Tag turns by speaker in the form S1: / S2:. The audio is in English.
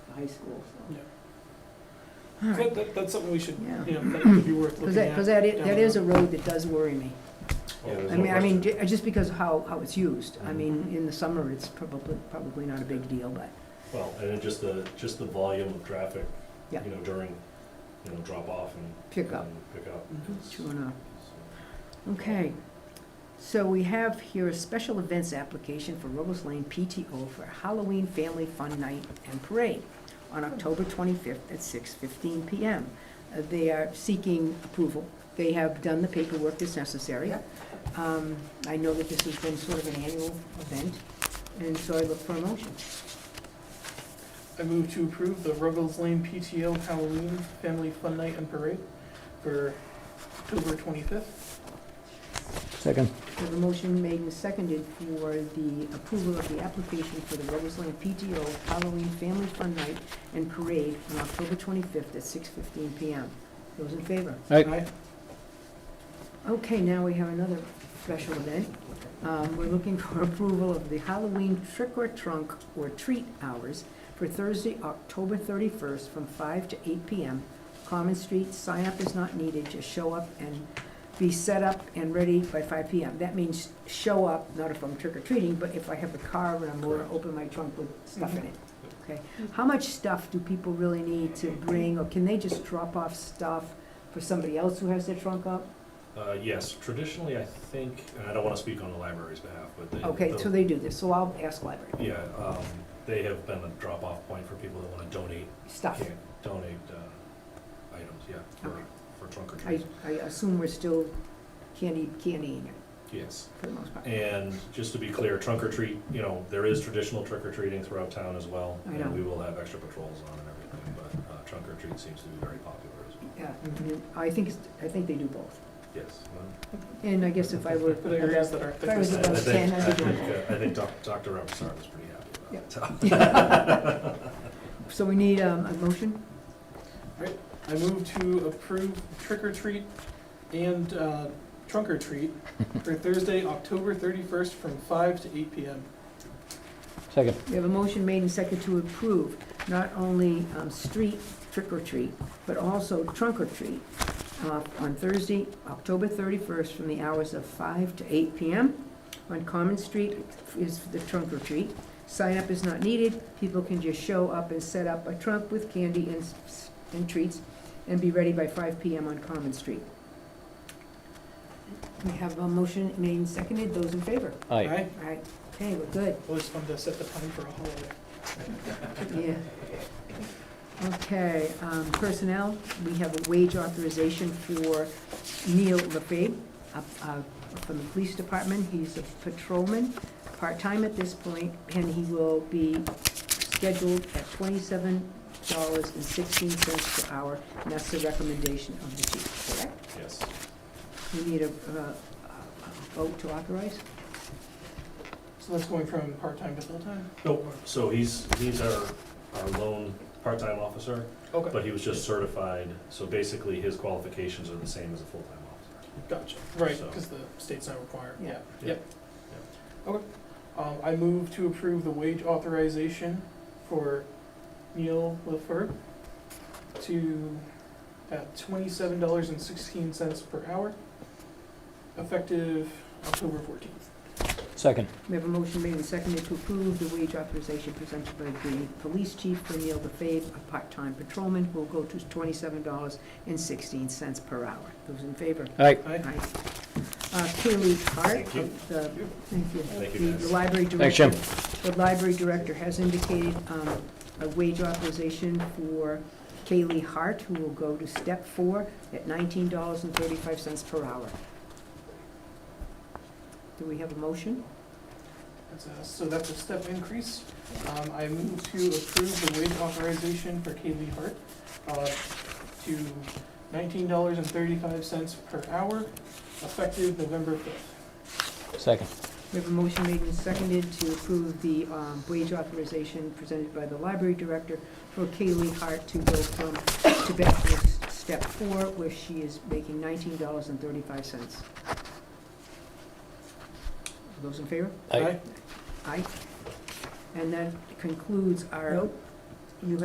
S1: high school, so.
S2: All
S3: So
S2: right,
S3: That, that, that's something we should,
S2: Yeah.
S3: you know, that could be
S2: because
S3: worth looking
S2: that,
S3: at.
S2: because that is,
S3: down
S2: that
S3: the
S2: is a
S3: road.
S2: road that does worry me.
S4: Oh, there's
S2: I
S4: no
S2: mean, I mean,
S4: question. Mm-hmm.
S2: ju- just because of how, how it's used. I mean, in the summer, it's probably, probably not a big deal, but,
S4: Well, and then just the, just the volume of traffic, you
S2: Yeah.
S4: know, during, you know, drop off and.
S2: Pick up.
S4: and Pick up.
S3: Mhm.
S4: It's-
S2: true enough.
S4: so-
S2: Okay, so we have here a special events application for Robles Lane PTO for Halloween Family Fun Night and Parade on October 25th at 6:15 PM. Uh, They are seeking approval. They have done the paperwork that's necessary. Um, I know that this has been sort of an annual event, and so I look for a motion.
S3: I move to approve the Ruggles Lane PTO Halloween Family Fun Night and Parade for October twenty-fifth.
S5: Second.
S2: We have a motion made and seconded for the approval of the application for the Ruggles Lane PTO Halloween Family Fun Night and Parade on October 25th at 6:15 PM. Those in favor?
S5: Aye.
S2: Okay, now we have another special event. Um, We're looking for approval of the Halloween trick or trunk or treat hours for Thursday, October 31st, from 5 to 8 PM. Common Street, sign up is not needed, just show up and be set up and ready by 5 PM. That means show up, not if I'm trick or treating, but if I have a car and I'm going to
S4: Correct.
S2: open my trunk with stuff in it. Okay, how much stuff do people really need to bring, or can they just drop off stuff for somebody else who has their trunk up?
S4: Uh, yes, traditionally, I think, and I don't wanna speak on the library's behalf, but they.
S2: Okay,
S4: they'll-
S2: so they do this, so I'll ask library,
S4: Yeah, um, they have been a drop-off point for people that wanna donate,
S2: stuff.
S4: can't donate, uh, items, yeah,
S2: Okay.
S4: for, for trunk or
S2: I,
S4: treat.
S2: I assume we're still candy, candying it
S4: Yes.
S2: for the most part.
S4: And just to be clear, trunk or treat, you know, there is traditional trick or treating throughout town as well.
S2: I know.
S4: And we will have extra patrols on and everything, but uh, trunk or treat seems to be very popular as well.
S2: Yeah, I mean, I think, it's- I think they do both.
S4: Yes. well,
S2: And I guess if I were,
S3: But I agree with that our
S2: If I was
S4: I-
S2: about
S4: I think-
S2: 10,
S4: I
S2: I'd be
S4: think,
S2: doing
S4: uh, I think Doc- Dr. Robinson is pretty happy about that.
S2: so we need um, a motion,
S3: I move to approve trick or treat and, uh, trunk or treat for Thursday, October thirty-first from five to eight PM.
S5: Second.
S2: we have a motion made and second to approve not only um, street trick or treat, but also trunk or treat uh, on Thursday, October 31st, from the hours of 5 to 8 p.m. On Common Street is the trunk or treat. Sign up is not needed. People can just show up and set up a trunk with candy and, s- and treats and be ready by 5 p.m. on Common Street. We have a motion made and seconded. Those in favor?
S5: Aye.
S2: All right. Okay, we're good.
S3: Always fun to set the time for a holiday.
S2: Yeah. Okay, um, personnel, we have a wage authorization for Neil Lefebvre up, uh, from the police department. He's a patrolman, part-time at this point, and he will be scheduled at twenty-seven dollars and sixteen cents per hour, and that's the recommendation of the chief, correct?
S4: Yes.
S2: We need a, uh, a vote to authorize?
S3: So that's going from part-time to full-time?
S4: Nope, so he's, he's our, our lone part-time officer,
S3: Okay,
S4: but he was just certified, so basically his qualifications are the same as a full-time officer.
S3: gotcha. Right,
S4: So-
S3: because the state's not required,
S2: Yeah.
S3: yeah, yep. Okay. Um, I move to approve the wage authorization for Neil LaFleur to, at twenty-seven dollars and sixteen cents per hour, effective October fourteenth.
S5: Second.
S2: We have a motion made and seconded to approve the wage authorization presented by the police chief for Neil DeFave, a part-time patrolman who will go to twenty-seven dollars and sixteen cents per hour. Those in favor?
S5: Aye.
S3: Aye.
S2: Aye. Uh, Kaylee Hart
S4: Thank you.
S2: of the, thank you.
S4: Thank you,
S2: The- The
S4: guys.
S2: library
S5: Thanks,
S2: director. The library director has indicated um, a wage authorization for Kaylee Hart, who will go to step four at nineteen dollars and thirty-five cents per hour. Do we have a motion?
S3: That's a- So that's a step increase. Um, I move to approve the wage authorization for Kaylee Hart uh, to nineteen dollars and thirty-five cents per hour, effective November fifth.
S5: Second.
S2: We have a motion made and seconded to approve the um, wage authorization presented by the library director for Kaylee Hart to go from, to back to s- step four, where she is making nineteen dollars and thirty-five cents. Those in favor?
S5: Aye.
S2: Aye. And that concludes our
S1: Nope.